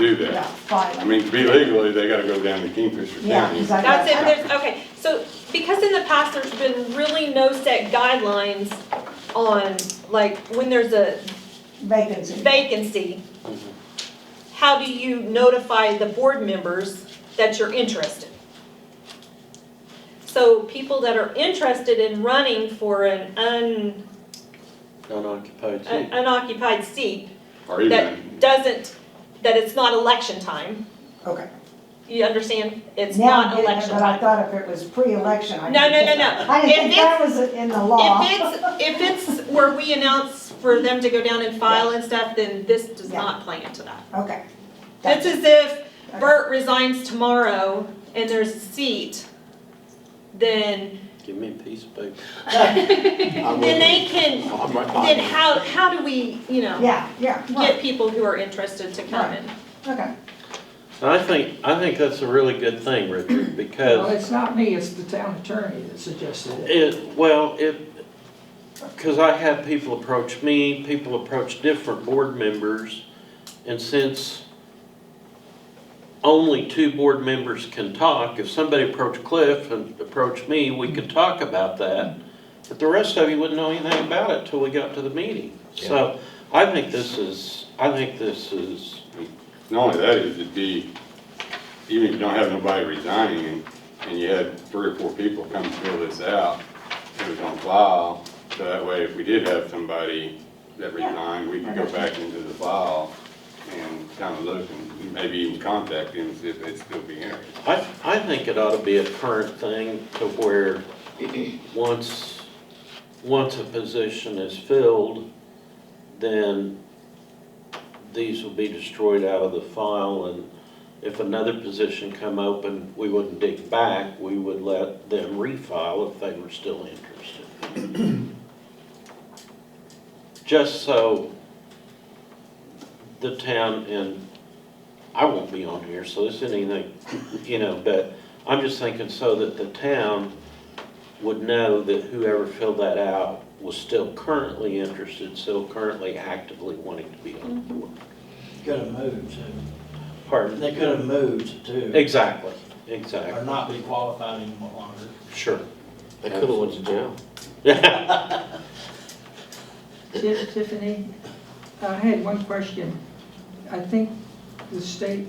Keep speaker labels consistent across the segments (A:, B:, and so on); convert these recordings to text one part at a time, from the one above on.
A: do
B: Yeah,
A: that. I
B: five.
A: mean, to be legally, they gotta go down to Kingfisher
B: Yeah,
A: County.
B: because I got.
C: That's it, there's, okay, so, because in the past, there's been really no set guidelines on, like, when there's a
B: Vacancy.
C: vacancy, how do you notify the board members that you're interested? So people that are interested in running for an un, an
D: unoccupied seat.
C: unoccupied seat,
A: Or even,
C: that doesn't, that it's not election time,
B: Okay.
C: you understand? It's
B: Now I'm
C: not
B: getting it,
C: election
B: But I
C: time.
B: thought if it was pre-election, I.
C: No,
B: didn't
C: no,
B: think-
C: no, no.
B: I didn't
C: If
B: think that was in the law.
C: If it's, if it's where we announce for them to go down and file and stuff, then this does
B: Yeah.
C: not play into that.
B: Okay.
C: It's as if Bert resigns tomorrow and there's a seat, then,
D: Give me a piece of paper.
C: then they can,
A: I might
C: then
A: not,
C: how, how do we, you know,
B: Yeah, yeah, right,
C: get people who are interested to come in?
B: okay.
D: I think, I think that's a really good thing, Richard,
E: Well,
D: because
E: it's not me, it's the town attorney that suggested it.
D: it, well, it, because I had people approach me, people approach different board members, and since only two board members can talk, if somebody approached Cliff and approached me, we could talk about that, but the rest of you wouldn't know anything about it till we got to the meeting. So I think this is, I think this is
A: not only that, it'd be, even if you don't have nobody resigning and, and you had three or four people come fill this out, it was on file, so that way if we did have somebody that resigned, we could go back into the file and kind of look and maybe even contact them, see if they'd still be interested.
D: I, I think it ought to be a current thing to where, once, once a position is filled, then these will be destroyed out of the file, and if another position come open, we wouldn't dig back, we would let them refile if they were still interested. Just so the town, and I won't be on here, so this isn't anything you know, but I'm just thinking so that the town would know that whoever filled that out was still currently interested, still currently actively wanting to be on the board.
F: Could have moved too.
D: Pardon?
F: They could have moved too,
D: Exactly,
F: or
D: exactly,
F: not be qualified anymore longer.
D: sure.
G: They could have went to jail.
E: Ti- Tiffany, I had one question. I think the state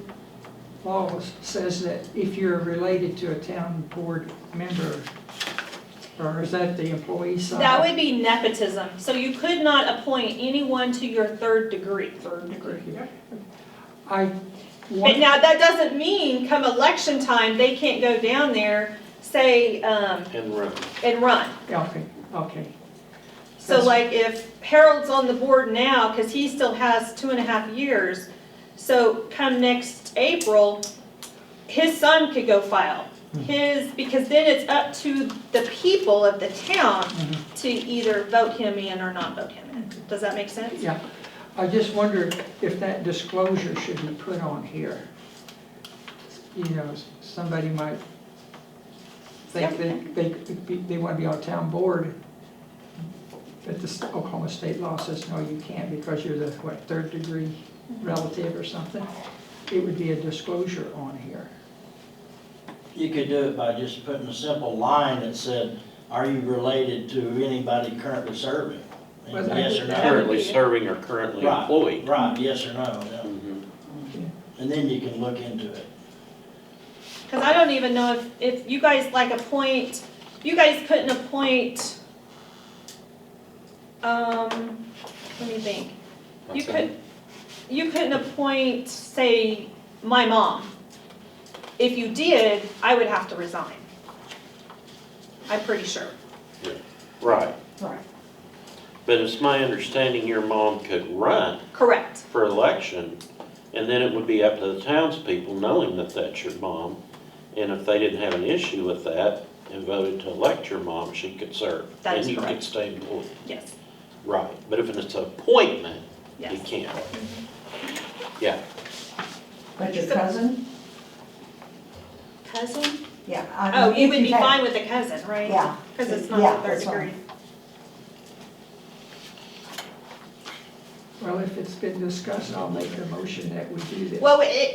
E: law says that if you're related to a town board member, or is that the employee side?
C: That would be nepotism, so you could not appoint anyone to your third degree.
E: Third degree. I,
C: But
E: one,
C: now, that doesn't mean come election time, they can't go down there, say, um,
D: And run.
C: and run.
E: yeah, okay, okay.
C: So like if Harold's on the board now, because he still has two and a half years, so come next April, his son could go file. His, because then it's up to the people of the town to either vote him in or not vote him in. Does that make sense?
E: Yeah, I just wondered if that disclosure should be put on here. You know, s- somebody might think that they, could be- they want to be on town board, but the s- Oklahoma state law says, no, you can't because you're the, what, third degree relative or something? It would be a disclosure on here.
F: You could do it by just putting a simple line that said, are you related to anybody currently serving?
E: Well,
F: And
E: that-
F: Yes or no?
D: Currently serving or currently
F: Right,
D: employed.
F: Right, yes or no, yeah.
D: Mhm.
F: and then you can look into it.
C: Because I don't even know if, if you guys like appoint, you guys couldn't appoint, um, let me think. You could, you couldn't appoint, say, my mom. If you did, I would have to resign. I'm pretty sure.
D: Right,
B: Right.
D: but it's my understanding your mom could run
C: Correct.
D: for election, and then it would be up to the townspeople, knowing that that's your mom. And if they didn't have an issue with that and voted to elect your mom, she could serve.
C: That is
D: And you
C: correct.
D: could stay employed.
C: Yes,
D: Right, but if it's an appointment, you
C: yes. Mm-hmm.
D: can't. Yeah,
B: But your cousin,
C: Cousin?
B: yeah. I
C: Oh,
B: mean,
C: you
B: if
C: would be
B: had-
C: fine with a cousin, right?
B: Yeah.
C: Because it's
B: Yeah,
C: not the third
B: that's
C: degree.
B: fine.
E: Well, if it's been discussed, I'll make a motion that we do this.
C: Well, it,